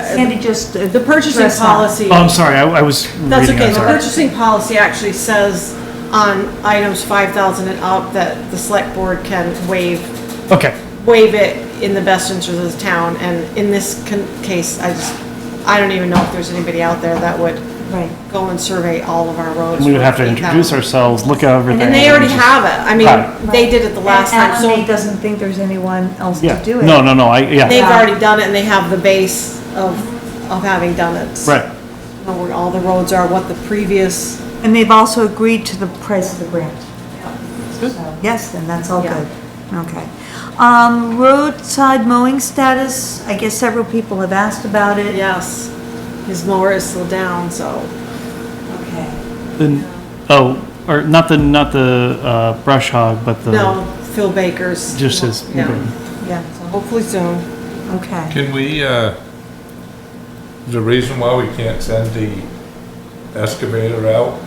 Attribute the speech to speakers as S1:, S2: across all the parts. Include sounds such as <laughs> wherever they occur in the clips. S1: Sandy just. uh,
S2: The purchasing policy.
S3: Oh, I'm sorry, I I was reading.
S2: That's
S3: I'm
S2: okay, the
S3: sorry.
S2: purchasing policy actually says on items 5,000 and up that the select board can waive,
S3: Okay,
S2: waive it in the best interest of the town, and in this con- case, I just, I don't even know if there's anybody out there that would
S1: Right.
S2: go and survey all of our roads.
S3: we would have to
S2: for
S3: introduce
S2: 8,000.
S3: ourselves, look at everything.
S2: And they already have it, I
S3: Got it.
S2: mean, they did it the last time,
S1: And Alan May
S2: so
S1: doesn't think there's anyone else to
S3: Yeah,
S1: do it.
S3: no, no, no, I,
S2: they've
S3: yeah,
S2: already done it, and they have the base of, of having done it. so
S3: right.
S2: Know where all the roads are, what the previous
S1: And they've also agreed to the price of the grant. So, Yes, then that's all
S2: Yeah.
S1: good. Okay. Um, roadside mowing status, I guess several people have asked about it.
S2: Yes, his mower is still down, so.
S1: Okay.
S3: The- Oh, or not the, not the uh, brush hog, but
S2: No,
S3: the,
S2: Phil Baker's.
S3: just his.
S2: Yeah.
S1: Yeah,
S2: So Hopefully soon.
S1: okay.
S4: Can we, uh, the reason why we can't send the excavator out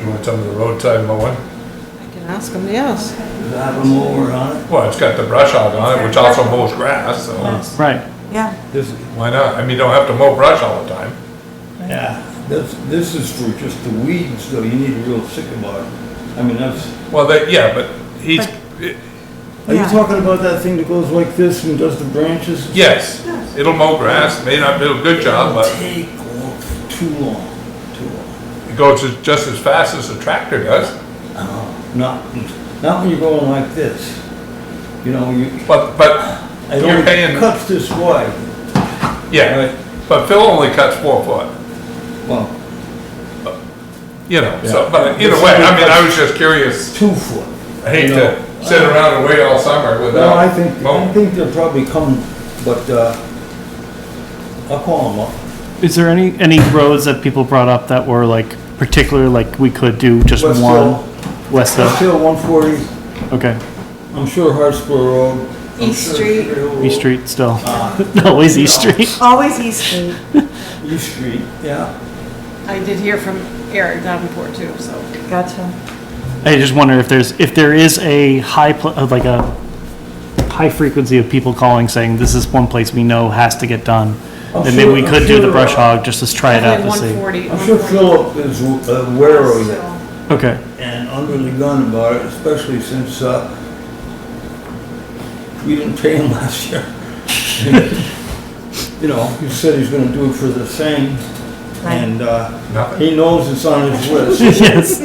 S4: doing some of the roadside mowing?
S2: I can ask him, yes.
S5: Does it have a mower on it?
S4: Well, it's got the brush hog on it, which also mows grass, so
S3: Right,
S1: Yeah,
S5: This,
S4: why not? I mean, you don't have to mow brush all the time.
S5: yeah, this, this is for just the weeds, though, you need a real sycamore. I mean, that's,
S4: Well, that, yeah, but he's,
S5: are you
S1: Yeah.
S5: talking about that thing that goes like this and does the branches?
S4: yes, it'll mow grass, may not do a good job,
S5: It'll
S4: but
S5: take long- too long, too long.
S4: it goes as- just as fast as the tractor does.
S5: Uh-huh. Not, not when you're going like this. You know, you,
S4: But, but,
S5: it
S4: You're
S5: only
S4: paying-
S5: cuts this wide.
S4: yeah,
S5: right?
S4: but Phil only cuts four foot,
S5: Well,
S4: you know, so,
S5: Yeah.
S4: but either way, I mean, I was just curious.
S5: two foot.
S4: I hate
S5: you know.
S4: to sit around and wait all summer
S5: Well,
S4: without.
S5: I think, I
S4: mowing.
S5: think they'll probably come, but, uh, I'll call them up.
S3: is there any, any roads that people brought up that were like particular, like we could do just
S5: West
S3: one?
S5: Hill,
S3: West
S5: West
S3: Hill,
S5: Hill, one forty,
S3: okay,
S5: I'm sure Hartsburg Road. I'm
S2: East
S5: sure
S2: Street.
S5: Trail Road.
S3: East Street still, <laughs>
S5: Ah,
S3: always East Street.
S1: always East Street.
S5: East Street, yeah.
S2: I did hear from Eric Davenport too, so.
S1: Gotcha.
S3: I just wonder if there's, if there is a high, pl- uh, like a high frequency of people calling saying, this is one place we know has to get done.
S5: I'm
S1: Oh,
S3: Then maybe we
S5: sure-
S3: could
S5: I'm
S3: do the
S5: sure-
S3: brush hog, just to try it out to
S2: One
S3: see.
S2: forty.
S5: I'm sure Philip is uh, aware of it
S3: Okay,
S5: and under the gun about it, especially since, uh, we didn't pay him <laughs> last year. You know, he said he's gonna do it for the same and, uh,
S4: Nothing.
S5: He knows it's
S3: <laughs>
S5: on his list.
S3: yes,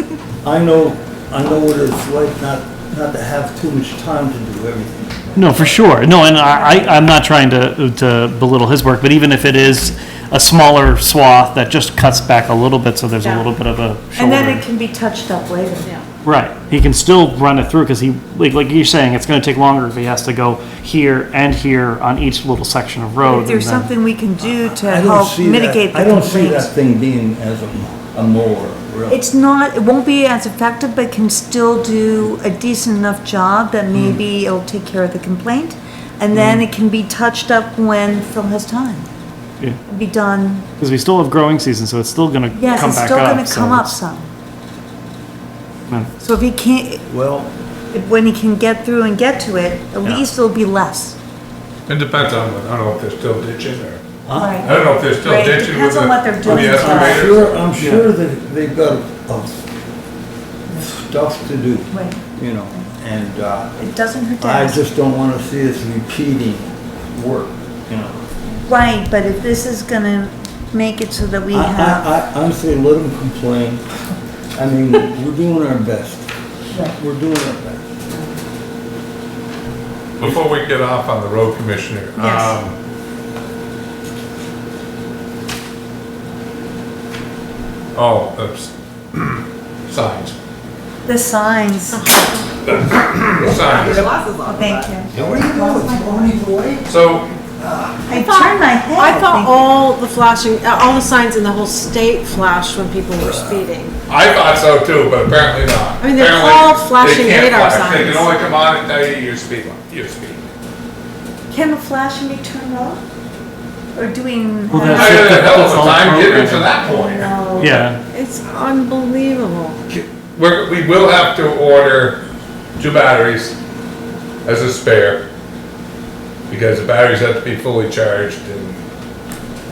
S5: I know, I know what it's like not, not to have too much time to do everything.
S3: no, for sure, no, and I, I- I'm not trying to, to belittle his work, but even if it is a smaller swath that just cuts back a little bit, so there's a
S2: Yeah.
S3: little bit of a
S1: And then it
S3: shoulder.
S1: can be touched up later.
S2: Yeah,
S3: Right, he can still run it through, because he, like, like you're saying, it's gonna take longer if he has to go here and here on each little section of road.
S1: If there's
S3: and then-
S1: something we can do to
S5: I don't
S1: help
S5: see that-
S1: mitigate the
S5: I don't see
S1: complaints.
S5: that thing being as a, a mower, really.
S1: It's not, it won't be as effective, but can still do a decent enough job
S3: Mm.
S1: that maybe it'll take care of the complaint. And then it can be touched up when Phil has time.
S3: Yeah.
S1: Be done,
S3: Because we still have growing season, so it's still gonna come back
S1: yes,
S3: up.
S1: it's still gonna
S3: so
S1: come up
S3: it's-
S1: some.
S3: Yeah.
S1: So if he can't,
S5: Well,
S1: if- when he can get through and get to it, at
S3: Yeah.
S1: least it'll be less.
S4: It depends on, I don't know if they're still ditching or, I
S1: Right.
S4: don't know if they're still
S1: Right, it
S4: ditching with
S1: depends
S4: the,
S1: on what they're
S4: with the
S1: doing.
S5: I'm
S4: excavators.
S5: sure, I'm sure that they've got a- stuff to do,
S1: Right.
S5: you know, and, uh,
S1: It doesn't hurt to
S5: I
S1: ask.
S5: just don't wanna see us repeating work, you know.
S1: Right, but if this is gonna make it so that we
S3: Uh,
S5: I,
S1: have,
S5: I, I honestly, let them complain. I mean, we're doing our best. We're doing our best.
S4: Before we get off on the road commissioner,
S2: Yes.
S4: um, oh, oops, <clears throat> signs,
S1: the signs,
S2: Oh,
S4: signs.
S1: Oh, thank you.
S5: What are you doing? Going either way?
S4: So,
S1: I turned my head.
S2: I thought
S1: thinking-
S2: all the flashing, uh, all the signs in the whole state flashed when people were speeding.
S4: I thought so too, but apparently not.
S2: I mean, they're
S4: Apparently,
S2: called
S4: they
S2: flashing
S4: can't
S2: radar
S4: flash. They
S2: signs.
S4: can only come on at night, you're speeding, you're speeding.
S1: Can the flashing be turned off? Or doing? uh,
S3: Well,
S4: I
S3: that's-
S4: had a hell of
S3: That's
S4: a
S3: all
S4: time getting
S3: programming.
S4: to that point.
S1: No.
S3: Yeah,
S2: It's unbelievable.
S4: We're, we will have to order two batteries as a spare, because the batteries have to be fully charged and